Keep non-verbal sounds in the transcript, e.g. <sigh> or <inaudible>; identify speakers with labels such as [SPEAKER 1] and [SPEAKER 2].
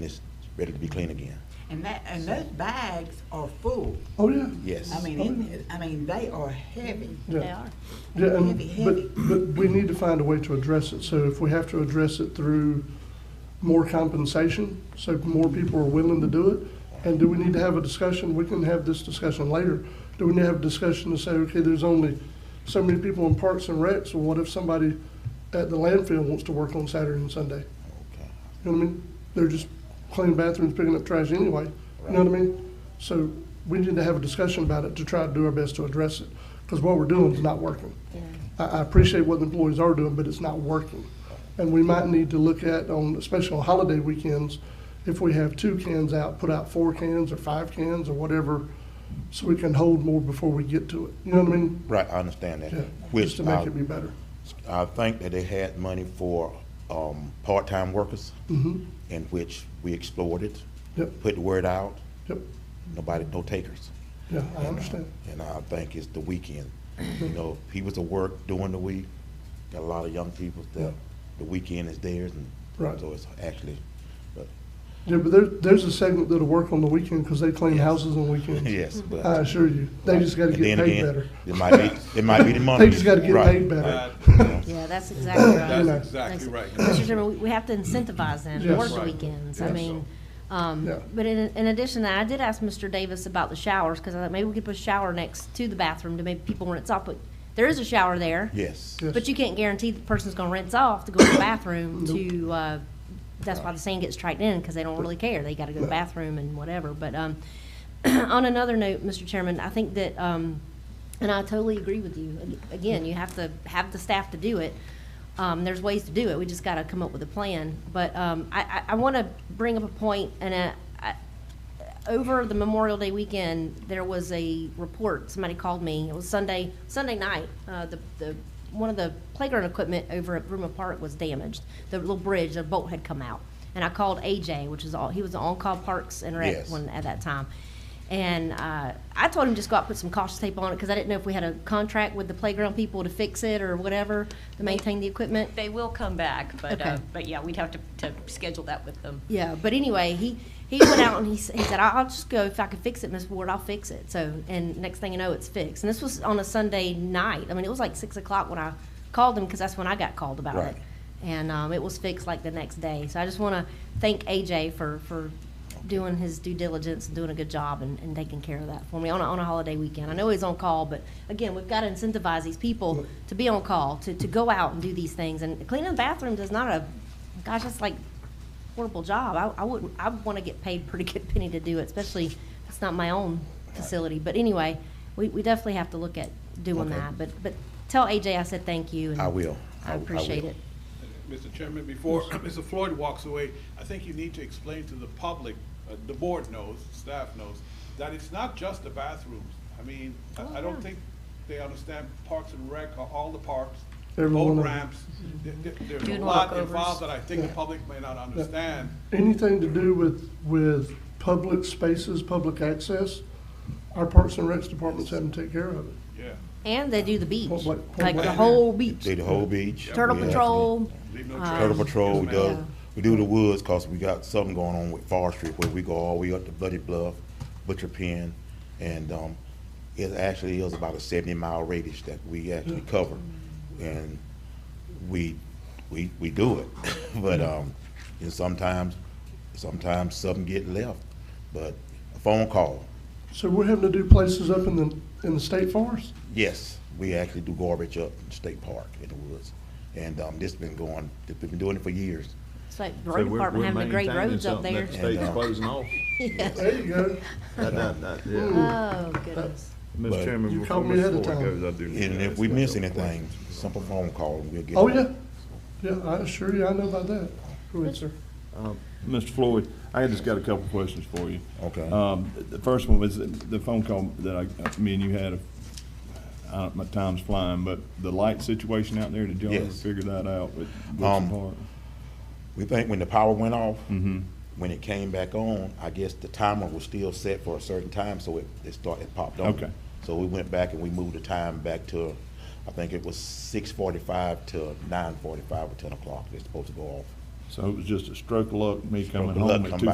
[SPEAKER 1] It's ready to be clean again.
[SPEAKER 2] And that, and those bags are full.
[SPEAKER 3] Oh, yeah.
[SPEAKER 1] Yes.
[SPEAKER 2] I mean, in- I mean, they are heavy.
[SPEAKER 3] Yeah.
[SPEAKER 4] They are.
[SPEAKER 3] Yeah, and,
[SPEAKER 2] Heavy, heavy.
[SPEAKER 3] but, but we need to find a way to address it. So if we have to address it through more compensation, so more people are willing to do it, and do we need to have a discussion? We can have this discussion later. Do we need to have a discussion to say, okay, there's only so many people in Parks and Recs, so what if somebody at the landfill wants to work on Saturday and Sunday?
[SPEAKER 1] Okay.
[SPEAKER 3] You know what I mean? They're just cleaning bathrooms, picking up trash anyway. You know what I mean? So we need to have a discussion about it to try to do our best to address it, because what we're doing is not working. I, I appreciate what the employees are doing, but it's not working. And we might need to look at on, especially on holiday weekends, if we have two cans out, put out four cans or five cans or whatever, so we can hold more before we get to it. You know what I mean?
[SPEAKER 1] Right, uh, I understand that.
[SPEAKER 3] Yeah, just
[SPEAKER 1] Which
[SPEAKER 3] to make
[SPEAKER 1] I,
[SPEAKER 3] it be better.
[SPEAKER 1] I think that they had money for, um, part-time workers,
[SPEAKER 3] Mm-hmm,
[SPEAKER 1] in which we explored it,
[SPEAKER 3] yep,
[SPEAKER 1] put the word out,
[SPEAKER 3] yep,
[SPEAKER 1] nobody, no takers.
[SPEAKER 3] yeah, I understand.
[SPEAKER 1] And I think it's the weekend,
[SPEAKER 3] <clears throat>
[SPEAKER 1] you know, people's at work during the week, got a lot of young people that, the weekend is theirs, and
[SPEAKER 3] Right.
[SPEAKER 1] so it's actually, but,
[SPEAKER 3] Yeah, but there, there's a segment that'll work on the weekend, because they clean houses on weekends.
[SPEAKER 1] <laughs> yes, but.
[SPEAKER 3] I assure you, Uh, they just gotta
[SPEAKER 1] And
[SPEAKER 3] get
[SPEAKER 1] then
[SPEAKER 3] paid
[SPEAKER 1] again,
[SPEAKER 3] better.
[SPEAKER 1] It might be, it might
[SPEAKER 3] <laughs>
[SPEAKER 1] be the money.
[SPEAKER 3] just gotta get
[SPEAKER 1] Right,
[SPEAKER 3] paid better.
[SPEAKER 1] right, you know.
[SPEAKER 4] Yeah, that's exactly right.
[SPEAKER 3] That's
[SPEAKER 4] That's-
[SPEAKER 5] exactly right. <coughs>
[SPEAKER 4] Mr. Chairman, we- we have to incentivize them to
[SPEAKER 3] Yes.
[SPEAKER 4] work
[SPEAKER 3] Right.
[SPEAKER 4] weekends. I
[SPEAKER 3] Yes.
[SPEAKER 4] mean, um,
[SPEAKER 3] Yeah.
[SPEAKER 4] but in, in addition, to that, I did ask Mr. Davis about the showers, because I thought maybe we could put a shower next to the bathroom to maybe people rinse off, but there is a shower there.
[SPEAKER 1] Yes,
[SPEAKER 3] Yeah.
[SPEAKER 4] But you can't guarantee the person's gonna rinse off to go to the bathroom to, uh, that's why the sand gets tracked in, because they don't really care. They gotta go to the bathroom and whatever. But, um, <clears throat> on another note, Mr. Chairman, I think that, um, and I totally agree with you. Ag- Again, you have to have the staff to do it. Um, there's ways to do it. We just gotta come up with a plan. But, um, I, I, I wanna bring up a point, and I, I, over the Memorial Day weekend, there was a report, somebody called me, it was Sunday, Sunday night, uh, the, the, one of the playground equipment over at Bruma Park was damaged. The little bridge, a bolt had come out. And I called AJ, which is all, he was the on-call Parks and Rec
[SPEAKER 1] Yes.
[SPEAKER 4] one at that time. And, uh, I told him just go out, and put some caution tape on it, cause I didn't know if we had a contract with the playground people to fix it or whatever, to maintain the equipment.
[SPEAKER 6] They will come back, but, uh,
[SPEAKER 4] Okay.
[SPEAKER 6] but yeah, we'd have to, to schedule that with them.
[SPEAKER 4] Yeah, but anyway, he, he went out and he, s- he said, I'll I'll just go, if I can fix it, Miss Ward, I'll fix it. So, and next thing you know, it's fixed. And this was on a Sunday night. I mean, it was like six o'clock when I called him, because that's when I got called about
[SPEAKER 1] Right.
[SPEAKER 4] it. And, um, it was fixed like the next day. So I just want to thank AJ for, for doing his due diligence and doing a good job and, and taking care of that for me on a, on a holiday weekend. I know he's on call, but again, we've got to incentivize these people to be on call, to, to go out and do these things. And cleaning the bathrooms is not a, gosh, that's like horrible job. I, I would, I want to get paid pretty good penny to do it, especially if it's not my own facility. But anyway, we, we definitely have to look at doing
[SPEAKER 1] Okay.
[SPEAKER 4] that. But, but tell AJ I said thank you. and
[SPEAKER 1] I will.
[SPEAKER 4] I
[SPEAKER 1] will.
[SPEAKER 4] appreciate it.
[SPEAKER 5] Mr. Chairman, before <coughs> Mr. Floyd walks away, I think you need to explain to the public, uh, the board knows, staff knows, that it's not just the bathrooms. I mean, I I don't think they understand Parks and Rec, are all the parks,
[SPEAKER 3] Every one
[SPEAKER 5] boat
[SPEAKER 3] of them.
[SPEAKER 5] ramps. There- there- There's a
[SPEAKER 6] Dune
[SPEAKER 5] lot
[SPEAKER 6] walkovers.
[SPEAKER 5] involved that I think the public may not understand.
[SPEAKER 3] anything to do with, with public spaces, public access, our Parks and Recs department's having to take care of it.
[SPEAKER 5] Yeah,
[SPEAKER 4] And they do the beach,
[SPEAKER 3] Well, what-
[SPEAKER 4] like the
[SPEAKER 5] what-
[SPEAKER 4] whole beach.
[SPEAKER 1] Did the whole beach.
[SPEAKER 4] Turtle
[SPEAKER 1] we have-
[SPEAKER 4] Patrol.
[SPEAKER 5] leave no
[SPEAKER 1] Turtle
[SPEAKER 5] trace.
[SPEAKER 1] Patrol, we
[SPEAKER 5] Yes,
[SPEAKER 1] do,
[SPEAKER 5] ma'am.
[SPEAKER 1] we do the woods, cause we got something going on with forestry, where we go all the way up to Bloody Bluff, Butcher Pen, and, um, it actually is about a seventy mile radius that we
[SPEAKER 5] Mm.
[SPEAKER 1] actually cover, and we, we, we do it, <laughs> but,
[SPEAKER 5] Mm.
[SPEAKER 1] um, and sometimes, sometimes something get left, but a phone call,
[SPEAKER 3] So we're having to do places up in the, in the state forest?
[SPEAKER 1] Yes, we actually do garbage up in State Park in the woods. And um, this been going, we've been doing it for years.
[SPEAKER 4] It's like the
[SPEAKER 7] So
[SPEAKER 4] road
[SPEAKER 7] we're-
[SPEAKER 4] department
[SPEAKER 7] we're
[SPEAKER 4] having the great
[SPEAKER 7] maintaining
[SPEAKER 4] roads up
[SPEAKER 7] something
[SPEAKER 4] there.
[SPEAKER 7] that the state's
[SPEAKER 1] And, uh,
[SPEAKER 7] closing off.
[SPEAKER 3] There you go.
[SPEAKER 7] That- that- that- yeah.
[SPEAKER 4] Oh, goodness.
[SPEAKER 1] But-
[SPEAKER 7] Mr. Chairman,
[SPEAKER 3] You
[SPEAKER 7] before
[SPEAKER 3] caught me ahead
[SPEAKER 7] Mr.
[SPEAKER 3] of
[SPEAKER 7] Ford
[SPEAKER 3] time.
[SPEAKER 7] goes, I do. need
[SPEAKER 1] And
[SPEAKER 7] to
[SPEAKER 1] if
[SPEAKER 7] ask
[SPEAKER 1] we
[SPEAKER 7] that
[SPEAKER 1] miss
[SPEAKER 7] other
[SPEAKER 1] anything,
[SPEAKER 7] question.
[SPEAKER 1] simple phone call and we'll get.
[SPEAKER 3] Oh,
[SPEAKER 1] it.
[SPEAKER 3] yeah. Yeah, I assure you, I know about that. Go ahead, sir.
[SPEAKER 7] Mr. Floyd, I just got a couple questions for you.
[SPEAKER 1] Okay.
[SPEAKER 7] Um, the first one was the phone call that I, me and you had, uh, I don't, my time's flying, but the light situation out there, did y'all ever
[SPEAKER 1] Yes.
[SPEAKER 7] figure that out with Woodson
[SPEAKER 1] Um,
[SPEAKER 7] Park?
[SPEAKER 1] We think when the power went off,
[SPEAKER 3] Mm-hmm.
[SPEAKER 1] when it came back on, I guess the timer was still set for a certain time, so it, it started, it popped on.
[SPEAKER 7] Okay.
[SPEAKER 1] So we went back and we moved the time back to, I think it was six forty-five to nine forty-five or ten o'clock. It's supposed to go off.
[SPEAKER 7] So it was just a stroke of luck, me coming
[SPEAKER 1] of luck,
[SPEAKER 7] home
[SPEAKER 1] come
[SPEAKER 7] at
[SPEAKER 1] back.
[SPEAKER 7] two